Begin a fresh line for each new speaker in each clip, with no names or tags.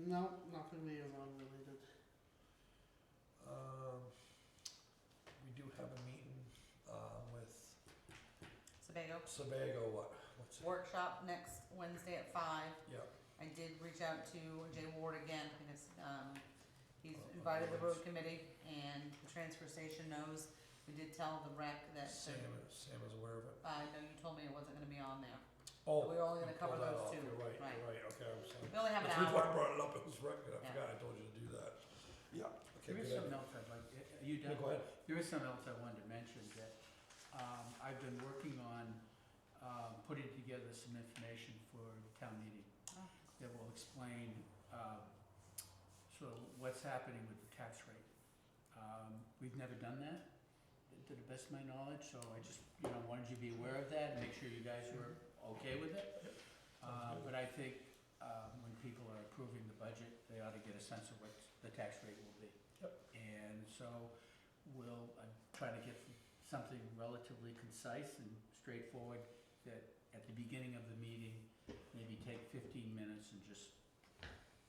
No, nothing liaison related.
Um, we do have a meeting, um, with
Sebago.
Sebago, what, what's it?
Workshop next Wednesday at five.
Yep,
I did reach out to Jay Ward again because um, he's
Oh,
invited the road committee and the transfer station knows. We did tell the rec that,
Sam, Sam is aware of it.
I know you told me it wasn't gonna be on there.
Oh.
We're only gonna
you
cover
pulled that off.
those two,
You're right,
right.
you're right, okay, I'm sorry.
We only have an
That's the reason why I
hour.
brought it up, it was right, I
Yeah.
forgot, I told you to do that. Yeah. Okay,
There is
good
something
idea.
else I'd like, are you
Yeah,
done?
go ahead.
There is something else I wanted to mention that um, I've been working on um, putting together some information for town meeting
Oh.
that will explain um, sort of what's happening with the tax rate. Um, We've never done that, to the best of my knowledge, so I just, you know, wanted you to be aware of that and make sure you guys were okay with it. Uh, But I think um, when people are approving the budget, they ought to get a sense of what the tax rate will be.
Yep.
And so we'll, I'm trying to get something relatively concise and straightforward that at the beginning of the meeting, maybe take 15 minutes and just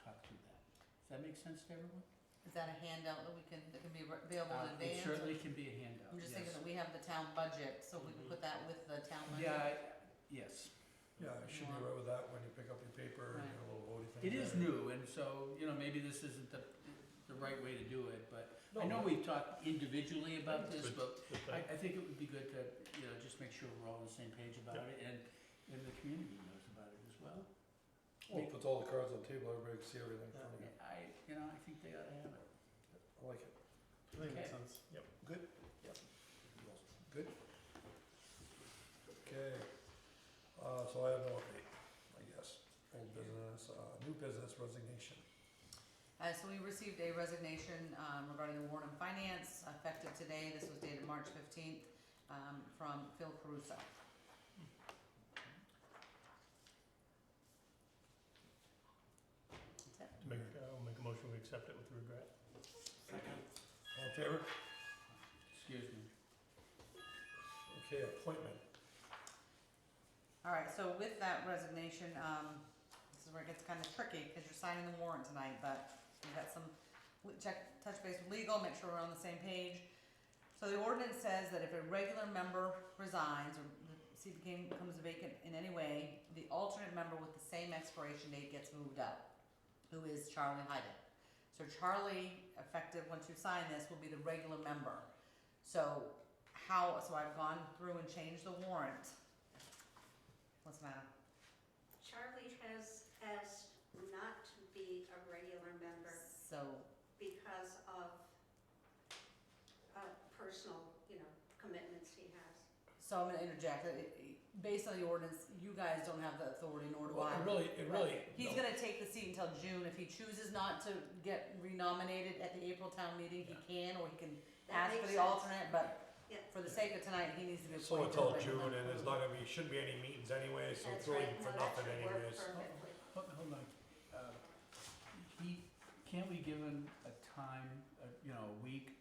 talk through that. Does that make sense to everyone?
Is that a handout that we can, that can be available in
Uh,
advance?
It certainly can be a handout,
I'm just
yes.
thinking that we have the town budget,
Mm-hmm.
so we can put that with the town budget.
Yeah, I- yes.
Yeah, I should be right with that when you pick up your paper and your little voting thing.
It is
there.
new, and so, you know, maybe this isn't the, the right way to do it, but I know
No.
we've talked individually about this, but I,
Okay.
I think it would be good to, you know, just make sure we're all on the same page about it, and, and the community knows about it as well.
Well, puts all the cards on the table, everybody can see everything in front of you.
I, you know, I think they ought to have it.
I like it.
I think
Okay.
makes sense.
Good? Yep. Good? Okay, uh, so I have no update, I guess. Old business, uh, new business resignation.
Uh, so we received a resignation, um, regarding the Warren Finance, effective today, this was dated March fifteenth, um, from Phil Caruso. That's it.
Make, uh, I'll make a motion, we accept it with regret.
All in favor?
Excuse me.
Okay, appointment.
All right, so with that resignation, um, this is where it gets kind of tricky, because you're signing the warrant tonight, but we've got some, we check, touch base with legal, make sure we're on the same page. So the ordinance says that if a regular member resigns, or the seat became, becomes vacant in any way, the alternate member with the same expiration date gets moved up, who is Charlie Hyden. So Charlie, effective, once you sign this, will be the regular member. So how, so I've gone through and changed the warrant. What's the matter?
Charlie has asked not to be a regular member
So,
because of uh, personal, you know, commitments he has.
so I'm gonna interject, It- it- based on the ordinance, you guys don't have the authority nor do
Well,
I.
it really, it really.
He's
no.
gonna take the seat until June, if he chooses not to get renominated at the April town meeting, he can, or he can ask for
That makes
the
sense.
alternate, but
Yeah,
for the sake of tonight, he needs to be
So
appointed.
until
right now.
June, and there's not gonna be, shouldn't be any meetings anyway, so
that's
it's
right.
really for
No, that
nothing
should work
anyways.
perfectly.
Hold, hold on. Uh, He, can't we give him a time, uh, you know, a week,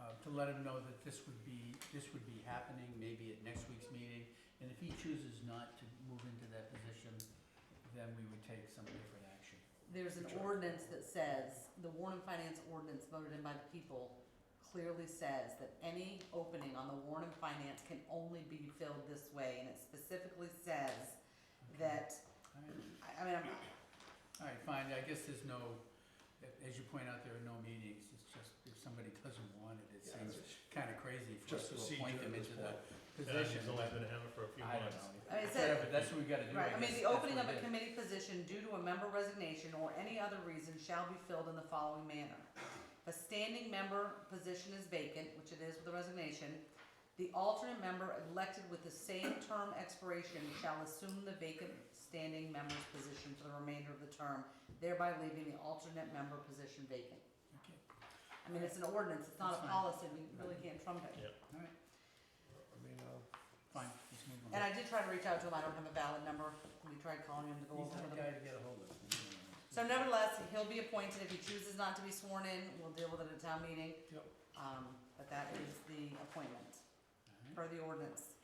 uh, to let him know that this would be, this would be happening, maybe at next week's meeting? And if he chooses not to move into that position, then we would take some different action.
There's an ordinance that says, the Warren Finance ordinance voted in by the people clearly says that any opening on the Warren Finance can only be filled this way, and it specifically says that
All right,
I I mean, I'm-
all right, fine, I guess there's no, as you point out, there are no meetings, it's just if somebody doesn't want it, it
Yeah,
seems kind of crazy for
Just
us to
procedure
appoint them
at this
into that
And
position.
He's only been having it for a few
I don't
months.
I
know.
mean, it said-
Whatever, that's what we gotta do.
right, I mean,
guess.
the
That's
opening
what
of a
it is.
committee position due to a member resignation or any other reason shall be filled in the following manner. If a standing member position is vacant, which it is with the resignation, the alternate member elected with the same term expiration shall assume the vacant standing member's position for the remainder of the term, thereby leaving the alternate member position vacant.
Okay,
I mean, it's an ordinance, it's not
That's
a
fine.
policy, we really can't trump it.
Yeah.
all right,
I mean, uh,
fine, let's move on.
And I did try to reach out to him, I don't have a valid number, we tried calling him to go
He's
over
not a
with
guy
him.
to get a hold of.
So nevertheless, he'll be appointed, if he chooses not to be sworn in, we'll deal with it at a town meeting.
Yep.
Um, but that is the appointment,
All right.
per the ordinance.